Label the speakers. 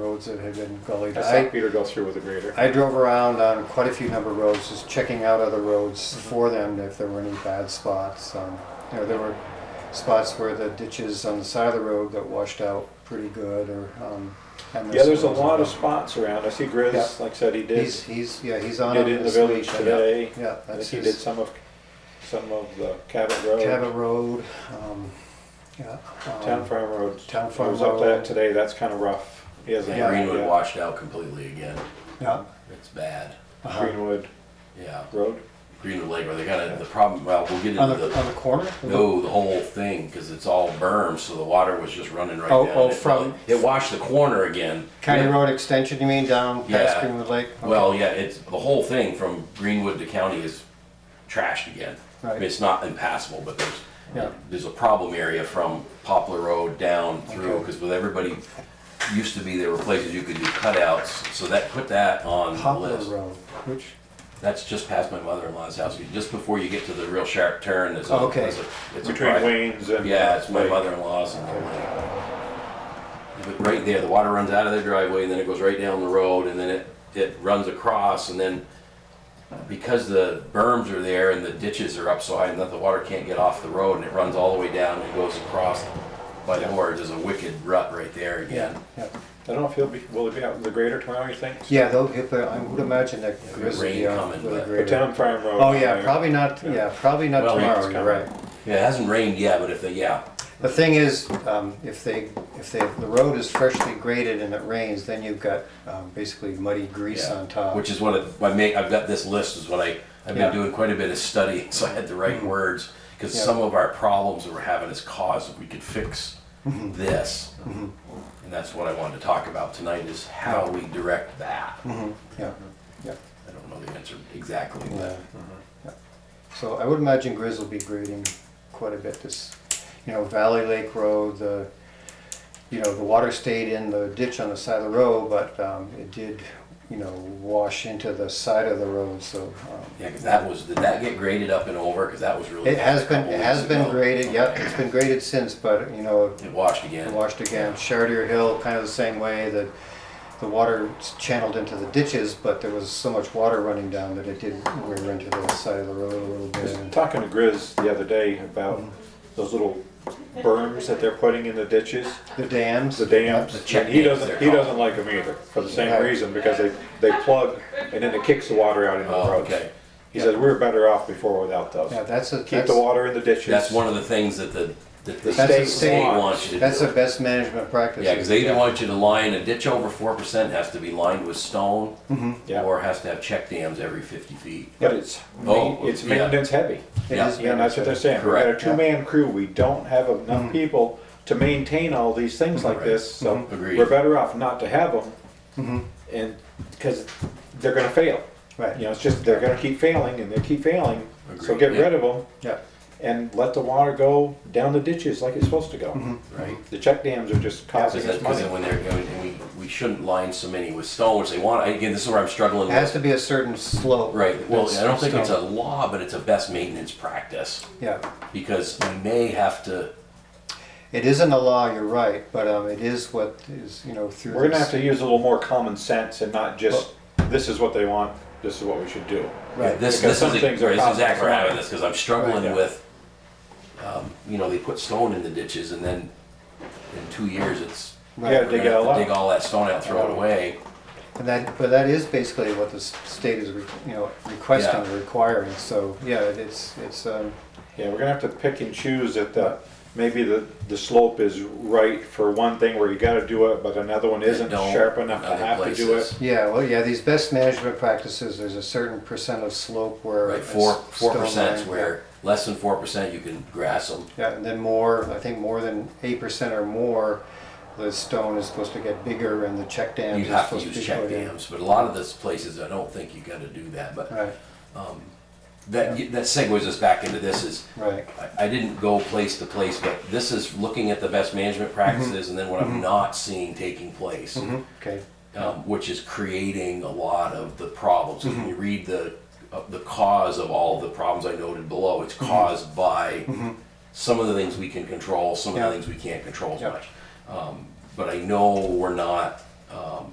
Speaker 1: roads that have been gullied.
Speaker 2: I saw
Speaker 1: I,
Speaker 2: Peter go through with a grader.
Speaker 1: I drove around on quite a few number of roads, just checking out other roads
Speaker 2: Mm-hmm.
Speaker 1: for them if there were any bad spots. Um, you know, there were spots where the ditches on the side of the road got washed out pretty good, or um, and
Speaker 2: Yeah, there's a
Speaker 1: some-
Speaker 2: lot of spots around. I see
Speaker 1: Yeah.
Speaker 2: Grizz, like I said, he did,
Speaker 1: He's he's yeah he's on
Speaker 2: did
Speaker 1: it
Speaker 2: in the
Speaker 1: week,
Speaker 2: village
Speaker 1: yeah.
Speaker 2: today.
Speaker 1: Yeah,
Speaker 2: I think
Speaker 1: that's
Speaker 2: he did
Speaker 1: his
Speaker 2: some of, some of the Cabot
Speaker 1: Cabot
Speaker 2: Road,
Speaker 1: Road. Um, yeah, um,
Speaker 2: Town Farm Road.
Speaker 1: Town
Speaker 2: I
Speaker 1: Farm
Speaker 2: was up that
Speaker 1: Road.
Speaker 2: today, that's kind of rough. He hasn't.
Speaker 1: Yeah.
Speaker 3: Greenwood
Speaker 2: yeah.
Speaker 3: washed out completely again.
Speaker 1: Yeah,
Speaker 3: It's bad.
Speaker 1: uh-huh.
Speaker 2: Greenwood
Speaker 3: Yeah,
Speaker 2: Road.
Speaker 3: Greenwood Lake, where they got it, the problem, well, we'll get into
Speaker 1: on the on
Speaker 3: the,
Speaker 1: the corner. of the-
Speaker 3: no, the whole thing, because it's all berm, so the water was just running right
Speaker 1: Oh,
Speaker 3: down.
Speaker 1: oh,
Speaker 3: it.
Speaker 1: from-
Speaker 3: It washed the corner again.
Speaker 1: County
Speaker 3: Yeah.
Speaker 1: Road Extension, you mean, down past
Speaker 3: Yeah.
Speaker 1: Greenwood Lake? Okay.
Speaker 3: Well, yeah, it's, the whole thing from Greenwood to county is trashed again. I mean,
Speaker 1: Right.
Speaker 3: It's not impassable, but
Speaker 1: Yeah.
Speaker 3: there's, there's a problem area from Poplar Road down through,
Speaker 1: Okay.
Speaker 3: because with everybody, used to be there were places you could do cutouts, so that, put that on the
Speaker 1: Poplar
Speaker 3: list.
Speaker 1: Road, which,
Speaker 3: That's just past my mother-in-law's house, You- just before you get to the real sharp turn, there's a,
Speaker 1: Oh, Okay.
Speaker 3: there's a- it's a
Speaker 2: Between
Speaker 3: private.
Speaker 2: Wayne's and.
Speaker 3: Yeah, it's my
Speaker 2: Lake.
Speaker 3: mother-in-law's and the lake. But right there, the water runs out of their driveway, and then it goes right down the road, and then it, it runs across, and then because the berms are there and the ditches are up so high, and that the water can't get off the road, and it runs all the way down and goes across by the hordes, there's a wicked rut right there again.
Speaker 1: yeah.
Speaker 2: I don't know if he'll be, will he be out with the grader tomorrow, you think?
Speaker 1: Yeah, they'll get the, I would imagine that Grizz would be
Speaker 3: rain
Speaker 1: on
Speaker 3: coming,
Speaker 1: with a
Speaker 3: but-
Speaker 2: The
Speaker 1: grader.
Speaker 2: Town Farm Road.
Speaker 1: Oh, yeah,
Speaker 2: there.
Speaker 1: probably not, yeah, probably not
Speaker 3: Well,
Speaker 1: tomorrow,
Speaker 2: rain's
Speaker 1: you're
Speaker 2: coming.
Speaker 1: right.
Speaker 3: Yeah, it hasn't rained yet, but if they, yeah,
Speaker 1: The thing is, um, if they, if they, the road is freshly graded and it rains, then you've got, um, basically muddy grease
Speaker 3: Yeah,
Speaker 1: on top.
Speaker 3: Which is what I, I make, I've got this list is what I, I've
Speaker 1: Yeah. Mm-hmm.
Speaker 3: been doing quite a bit of studying, so I had the right words. Because
Speaker 1: Yeah.
Speaker 3: some of our problems that we're having is caused, if we could fix
Speaker 1: Mm-hmm.
Speaker 3: this. And that's what I wanted to talk about tonight is how we direct that. I
Speaker 1: Yeah, yeah,
Speaker 3: don't know the answer exactly,
Speaker 1: yeah.
Speaker 3: but
Speaker 1: yeah. So I would imagine Grizz will be grading quite a bit this, you know, Valley Lake Road, the, you know, the water stayed in the ditch on the side of the road, but, um, it did, you know, wash into the side of the road, so, um,
Speaker 3: yeah, 'cause that was, did that get graded up and over? Because that was really.
Speaker 1: It has
Speaker 3: bad a
Speaker 1: been,
Speaker 3: couple
Speaker 1: it has
Speaker 3: weeks
Speaker 1: been
Speaker 3: ago.
Speaker 1: graded, yep, it's been graded since, but, you know,
Speaker 3: It washed
Speaker 1: it
Speaker 3: again.
Speaker 1: washed again. Chartier Hill, kind of the same way, that the water channeled into the ditches, but there was so much water running down that it did wear into the side of the road a little
Speaker 2: I was
Speaker 1: bit.
Speaker 2: talking to Grizz the other day about
Speaker 1: Mm-hmm.
Speaker 2: those little berms that they're putting in the ditches.
Speaker 1: The dams.
Speaker 2: the dams.
Speaker 3: The check
Speaker 2: and he
Speaker 3: dams,
Speaker 2: doesn't.
Speaker 3: they're
Speaker 2: He
Speaker 3: called.
Speaker 2: doesn't like them either for the same
Speaker 1: Right.
Speaker 2: reason because they they plug and then it kicks the water out into
Speaker 3: Oh,
Speaker 2: the road.
Speaker 3: okay.
Speaker 2: He says we were better off before without those.
Speaker 1: Yeah, that's a,
Speaker 2: Keep
Speaker 1: that's,
Speaker 2: the water in the ditches.
Speaker 3: That's one of the things that the, that the
Speaker 2: That's the
Speaker 3: state
Speaker 1: state.
Speaker 3: wants you to do.
Speaker 1: that's the best management practice.
Speaker 3: Yeah, because they either want you to line a ditch over four percent has to be lined with stone,
Speaker 1: Mm-hmm.
Speaker 2: Yeah.
Speaker 3: or has to have check dams every fifty feet.
Speaker 2: But it's
Speaker 3: Oh,
Speaker 2: ma- it's
Speaker 3: yeah.
Speaker 2: maintenance heavy.
Speaker 1: It
Speaker 3: yeah,
Speaker 1: is
Speaker 2: Yeah, and that's what they're saying. We got a
Speaker 3: Correct.
Speaker 2: two man crew. We don't have
Speaker 1: Mm.
Speaker 2: enough people to maintain all these things like
Speaker 3: Right.
Speaker 2: this. So
Speaker 3: Mhm. Agreed.
Speaker 2: we're better off not to have them,
Speaker 1: Mm-hmm.
Speaker 2: and because they're going to fail. You
Speaker 1: Right,
Speaker 2: know, it's just they're going to keep failing and they keep failing. So
Speaker 3: Agreed.
Speaker 2: get
Speaker 3: Yeah.
Speaker 2: rid of them.
Speaker 1: yeah,
Speaker 2: and let the water go down the ditches like it's supposed to go.
Speaker 3: Right.
Speaker 2: The check dams are just causing
Speaker 3: Because
Speaker 2: us
Speaker 3: then
Speaker 2: money.
Speaker 3: when they're, going- and we, we shouldn't line so many with stone, which they want, again, this is where I'm struggling
Speaker 1: it has
Speaker 3: with.
Speaker 1: to be a certain slope.
Speaker 3: Right, well,
Speaker 1: That's-
Speaker 3: I don't think it's a law, but it's a best maintenance practice,
Speaker 1: Yeah,
Speaker 3: because we may have to,
Speaker 1: it isn't a law, you're right, but, um, it is what is, you know, through.
Speaker 2: We're gonna
Speaker 1: this-
Speaker 2: have to use a little more common sense and not just, this is what they want, this is what we should do.
Speaker 1: Right.
Speaker 2: Because
Speaker 3: this, this is,
Speaker 2: some
Speaker 3: a- this
Speaker 2: things are
Speaker 3: is exactly
Speaker 2: costly.
Speaker 3: why I'm having this, because I'm
Speaker 1: Right, yeah.
Speaker 3: struggling with, um, you know, they put stone in the ditches, and then in two years, it's,
Speaker 1: Right.
Speaker 2: Yeah,
Speaker 3: we're
Speaker 2: dig
Speaker 3: gonna
Speaker 2: it all
Speaker 3: have to dig
Speaker 2: up.
Speaker 3: all that stone out, throw it away.
Speaker 1: And that, but that is basically what the s- state is, re- you know, requesting,
Speaker 3: Yeah.
Speaker 1: or requiring, so, yeah, it- it's, it's, um,
Speaker 2: Yeah, we're gonna have to pick and choose that the, maybe the, the slope is right for one thing where you gotta do it, but another one isn't
Speaker 3: don't,
Speaker 2: sharp enough to
Speaker 3: other
Speaker 2: have to do it.
Speaker 3: places.
Speaker 1: yeah, well, yeah, these best management practices, there's a certain percent of slope where.
Speaker 3: Right,
Speaker 1: it's
Speaker 3: four, four
Speaker 1: stone
Speaker 3: percent's
Speaker 1: line,
Speaker 3: where, less than four percent, you can grass them.
Speaker 1: Yeah, Yeah, and then more, I think more than eight percent or more, the stone is supposed to get bigger and the check
Speaker 3: You
Speaker 1: dams are
Speaker 3: have to
Speaker 1: supposed to be
Speaker 3: use check
Speaker 1: put in.
Speaker 3: dams, but a lot of those places, I don't think you gotta do that, but
Speaker 1: Right,
Speaker 3: that, that segues us back into this is,
Speaker 1: right,
Speaker 3: I, I didn't go place to place, but this is looking at the best management
Speaker 1: Mm-hmm.
Speaker 3: practices and then what I'm not seeing taking place.
Speaker 1: okay,
Speaker 3: um, which is creating a lot of the problems. When
Speaker 1: Mm-hmm.
Speaker 3: you read the uh, the cause of all the problems I noted below,
Speaker 1: Mm-hmm.
Speaker 3: it's caused by some of the things we can control, some of
Speaker 1: Yeah.
Speaker 3: the things we can't control as
Speaker 1: Yeah.
Speaker 3: much. Um, but I know we're not um,